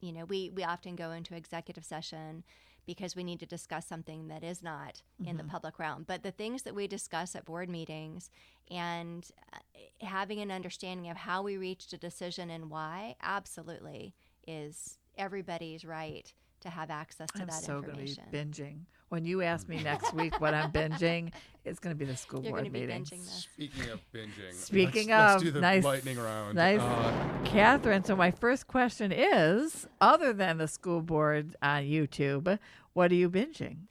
you know, we, we often go into executive session because we need to discuss something that is not in Mm-hmm. the public realm. But the things that we discuss at board meetings and uh, having an understanding of how we reached a decision and why absolutely is everybody's right to have access to I'm that so going to information. be binging. When you ask me next week what I'm binging, it's going to be the school You're board going to be meeting. binging this. Speaking of binging, Speaking let's, of, let's do the nice- lightning round. nice. Uh, Catherine, so my first question is other than the school board on YouTube, what are you binging?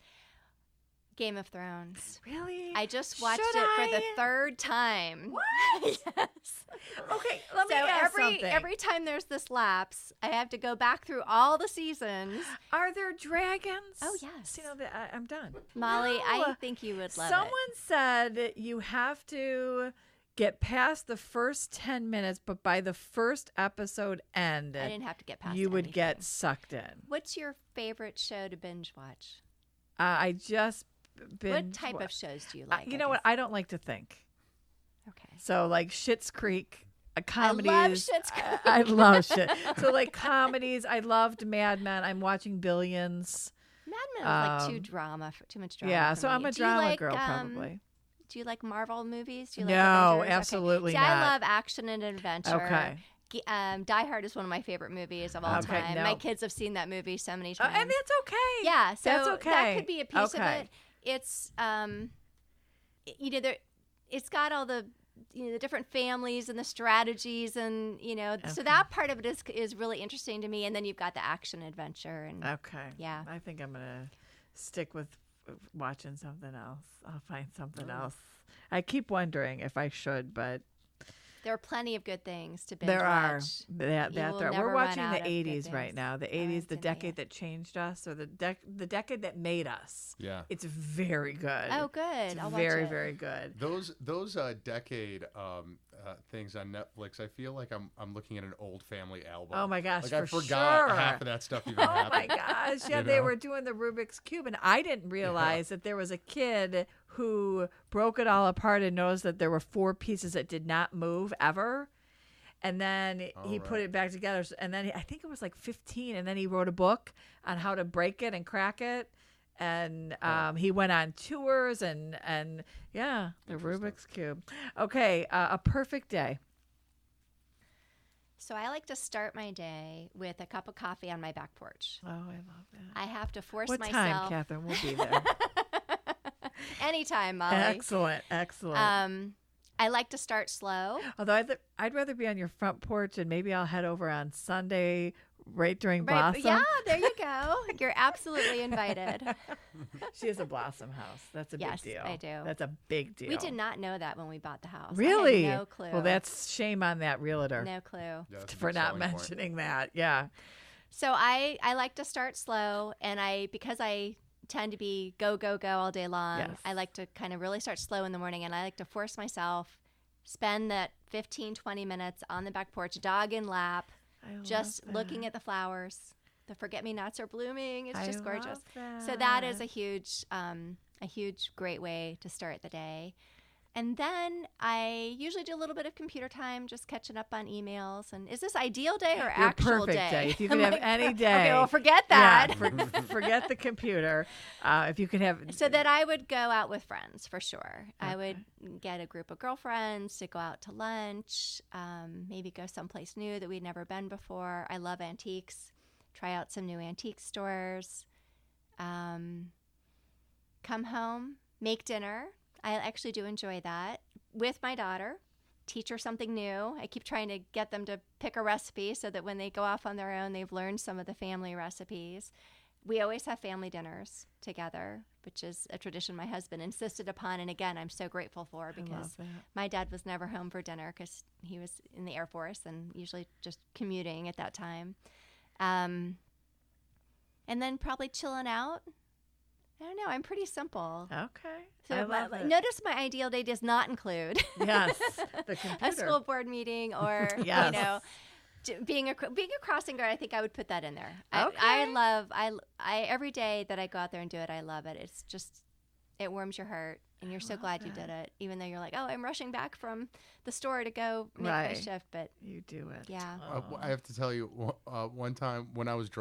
Game of Thrones. Really? I just watched Should it for the I? third time. What? yes. okay, let so me ask every something. every time there's this lapse, I have to go back through all the seasons. are there dragons? Oh, yes. You know, the- I, I'm done. Molly, No. I think you would love Someone it. said you have to get past the first 10 minutes, but by the first episode end, I didn't have to get past. you would get anything. sucked in. What's your favorite show to binge watch? Uh, I just been. what type of shows do you I- like? you I know what? guess? I don't like to think. okay. So like Schitt's Creek, a comedies. Schitt's I- I, love shit. So like comedies. I loved Mad Men. I'm watching Billions. Mad Men is like too Um, drama, f- too much drama. yeah. for So I'm me. a Do you drama like, girl um, probably. Do you like Marvel movies? Do you like No, Avengers? Okay. absolutely See, not. I love action and adventure. Okay. G- Um, Die Hard is one of my favorite movies of all Okay, time. no. My kids have seen that movie so many Oh, times. and that's okay. yeah, so that's that okay. could be a piece Okay. of it. It's um, y- you know, there, it's got all the you know the different families and the strategies and you know, so that part of it is is really interesting to me. And then you've got the action adventure and Okay. Yeah. I think I'm gonna stick with watching something else. I'll find something else. I keep wondering if I should, but there are plenty of good things to binge there are watch. that, You that will there. never We're run watching out of the good 80s right things. now. The I 80s, the didn't know yet. decade that changed us, or the dec- the decade that made us. yeah. It's very good. Oh, good. It's I'll watch very, it. very good. Those those uh, decade um, uh, things on Netflix, I feel like I'm I'm looking at an old family album. Oh my gosh, Like I for forgot sure. half of that stuff even Oh my happened. gosh. Yeah, You they know? were doing the Rubik's Cube, and I didn't realize that there was a kid who broke it all apart and noticed that there were four pieces that did not move ever. And then he All put right. it back together. s- And then he- I think it was like 15, and then he wrote a book on how to break it and crack it. And um, he went on tours and, and yeah, the Rubik's Cube. Okay, uh, a perfect day. So I like to start my day with a cup of coffee on my back porch. Oh, I love that. I have to force What time, myself Catherine? We'll be there. anytime, Molly. excellent, excellent. Um, I like to start slow. Although I'd, I'd rather be on your front porch and maybe I'll head over on Sunday right during Right, blossom. yeah, there you go. You're absolutely invited. She has a blossom house. That's a Yes, big deal. I do. That's a big deal. We did not know that when we bought the house. I had Really? no clue. Well, that's shame on that realtor no clue. Yeah, that's a for big not selling point. mentioning that. Yeah. So I I like to start slow, and I because I tend to be go go go all day long. Yes. I like to kind of really start slow in the morning, and I like to force myself spend that 15 20 minutes on the back porch, dog in lap, just looking at the flowers. The forget me nots are blooming. It's I just gorgeous. love So that is a that. huge, um, a huge great way to start the day. And then I usually do a little bit of computer time, just catching up on emails. And is this ideal day or Your actual perfect day. If you could My have any God. day. Okay, well, forget Yeah, that. for- forget the computer. Uh, if you could have So that I would go out with friends for sure. I would get a group of girlfriends to go out to lunch, um, maybe go someplace new that we'd never been before. I love antiques. Try out some new antique stores. Um, come home, make dinner. I actually do enjoy that with my daughter. Teach her something new. I keep trying to get them to pick a recipe so that when they go off on their own, they've learned some of the family recipes. We always have family dinners together, which is a tradition my husband insisted upon. And again, I'm so grateful for because that. my dad was never home for dinner because he was in the Air Force and usually just commuting at that time. Um, and then probably chilling out. I don't know. I'm pretty simple. Okay. So I my- love it. notice my ideal day does not include Yes. The computer. a school board meeting or Yes. you know j- being a cr- being a crossing guard. I think I would put that in there. I, I Okay. love I I every day that I go out there and do it, I love it. It's just it warms your heart. and you're so love glad you that. did it, even though you're like, oh, I'm rushing back from the store to go make my Right. shift, but You do it. Yeah. Uh, w- I have to tell you, w- uh, one time when I was